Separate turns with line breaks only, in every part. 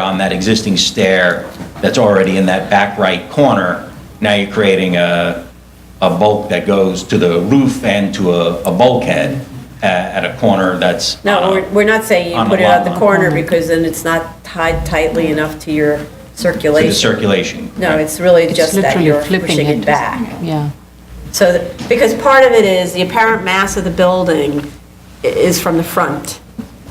on that existing stair that's already in that back right corner. Now you're creating a, a bulk that goes to the roof and to a, a bulkhead a- at a corner that's. uh,
No, we're, we're not saying
On
you
the
put it
lot
at the
line.
corner because then it's not tied tightly enough to your
To the
circulation.
circulation.
No, it's really just that
literally
you're
flipping
pushing
it.
it back.
Yeah.
So, th- because part of it is the apparent mass of the building i- is from the front.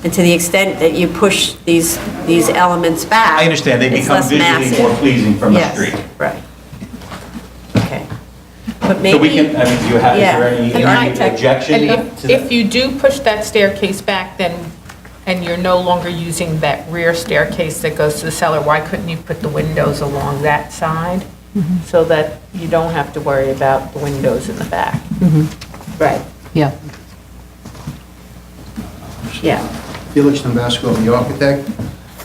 And to the extent that you push these, these elements back.
I understand, they
it's
become
less
visually
massive.
more pleasing from the
Yes,
street.
Right. Okay. But
So we
maybe,
can, uh, I mean, do you have, is
Yeah.
there any-
The
any
architect-
objection?
And
to
if,
that?
if you do push that staircase back, then, and you're no longer using that rear staircase that goes to the cellar, why couldn't you put the windows along that side? So that you don't have to worry about the windows in the back.
right,
Yeah.
yeah.
Felix Nambasco, the architect.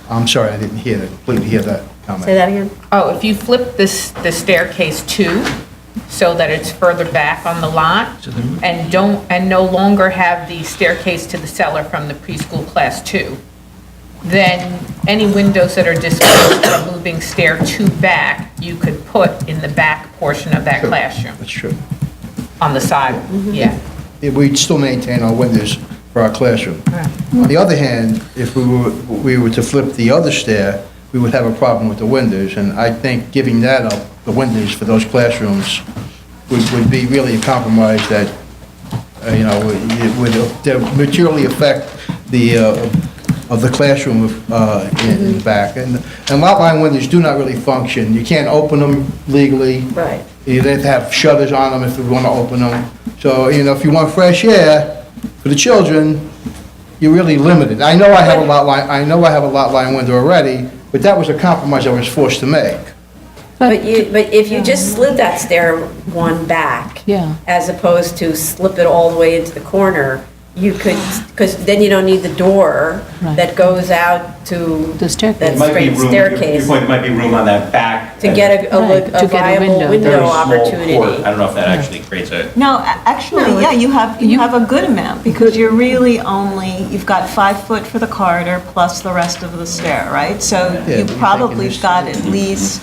I'm sorry, I didn't hear, that. completely hear that comment.
Say that again?
Oh, if you flip this, the staircase too, so that it's further back on the lot, and don't, and no longer have the staircase to the cellar from the preschool class two, then any windows that are displaced from moving stair two back, you could put in the back portion of that
Sure.
classroom,
That's true.
on the side, yeah.
Yeah, We'd still maintain our windows for our classroom. On the other hand, if we were, we were to flip the other stair, we would have a problem with the windows, and I think giving that up, the windows for those classrooms, would, would be really a compromise that, uh, you know, would- it would uh, materially affect the, uh, of the classroom uh, in in the back. And, and lot line windows do not really function. You can't open them legally.
Right.
You have to have shutters on them if you want to open them. So, you know, if you want fresh air for the children, you're really limited. I know I have a lot line, I know I have a lot line window already, but that was a compromise I was forced to make.
But you, but if you just slid that stair one back.
Yeah.
As opposed to slip it all the way into the corner, you could, because then you don't need the door
Right.
that goes out to.
The staircase.
That
It might be
straight
room- your-
staircase,
Your point might be room on that back.
to get a- a,
Right,
look-
to
a
get a
viable
window.
Very
window
small court. I
opportunity.
don't know if that actually creates a.
No, a- actually, yeah, you have, you have a good amount, because you're really only, you've got five foot for the corridor plus the rest of the stair, right? So
Yeah,
you
but you're
probably
taking
got
this-
at least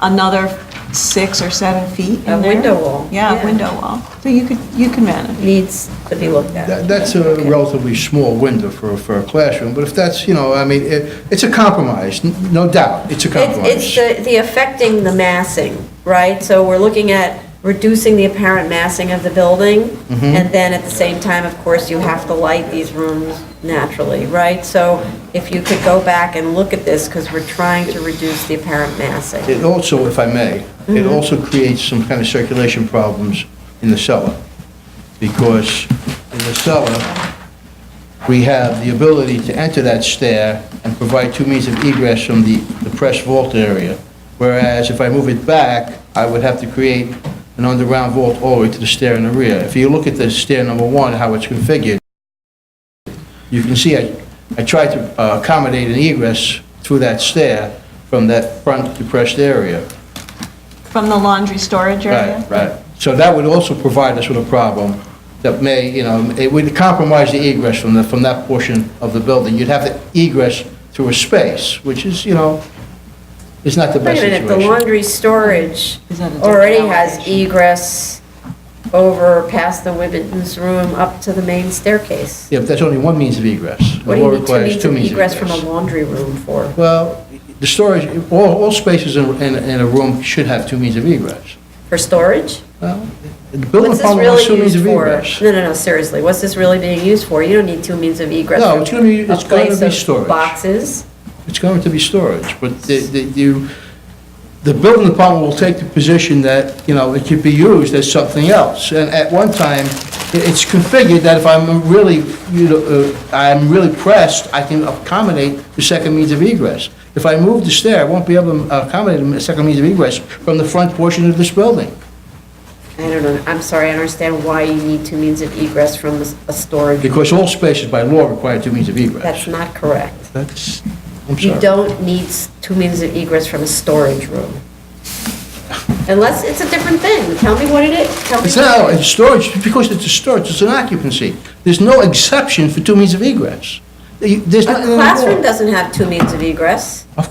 another six or seven feet in
A
there.
window wall, yeah.
Yeah, a window wall. So you could, you can manage.
Needs to be looked
That-
at.
That's a relatively small window for, for a classroom, but if that's, you know, I mean, it, it's a compromise, n- no doubt, it's
It's,
a
it's
compromise.
the- the affecting the massing, right? So we're looking at reducing the apparent massing of the building,
Mm-hmm.
and then at the same time, of course, you have to light these rooms naturally, right? So if you could go back and look at this, because we're trying to reduce the apparent massing.
It also, if I may, it also creates some kind of circulation problems in the cellar, because in the cellar, we have the ability to enter that stair and provide two means of egress from the the press vault area, whereas if I move it back, I would have to create an underground vault all the way to the stair in the rear. If you look at the stair number one, how it's configured, you can see I I tried to uh, accommodate an egress through that stair from that front depressed area.
From the laundry storage area?
Right, right. So that would also provide us with a problem that may, you know, it would compromise the egress from the, from that portion of the building. You'd have to egress through a space, which is, you know, is not the
Wait
best
a minute, the
situation.
laundry storage
Is that a different
already has
elevation?
egress over past the women's room up to the main staircase.
Yeah, but that's only one means of egress. The
What do you
law
need two
requires
means of
means of
egress from a laundry room for?
Well, the storage, all, all spaces in, in in a room should have two means of egress.
For storage?
Well, the building
What's this
department has
really
two means
used
of
for?
egress.
No, no, no, seriously, what's this really being used for? You don't need two means of egress.
No,
from
it's gonna be-
a
it's gonna
place
be
of
storage.
Boxes,
It's going to be storage, but the, the, you, the building department will take the position that, you know, it could be used as something else. And at one time, i- it's configured that if I'm really, you know, uh, I'm really pressed, I can accommodate the second means of egress. If I move the stair, I won't be able to accommodate the second means of egress from the front portion of this building.
I don't know, I'm sorry, I don't understand why you need two means of egress from a s- a storage.
Because all spaces by law require two means of
That's
egress.
not correct.
That's, I'm
You
sorry.
don't need s- two means of egress from a storage room. Unless it's a different thing, tell me what it is, tell me.
It's
what it
not,
is.
it's storage, because it's a storage, it's an occupancy. There's no exception for two means of egress. You- There's
A
not.
classroom doesn't have two means of egress.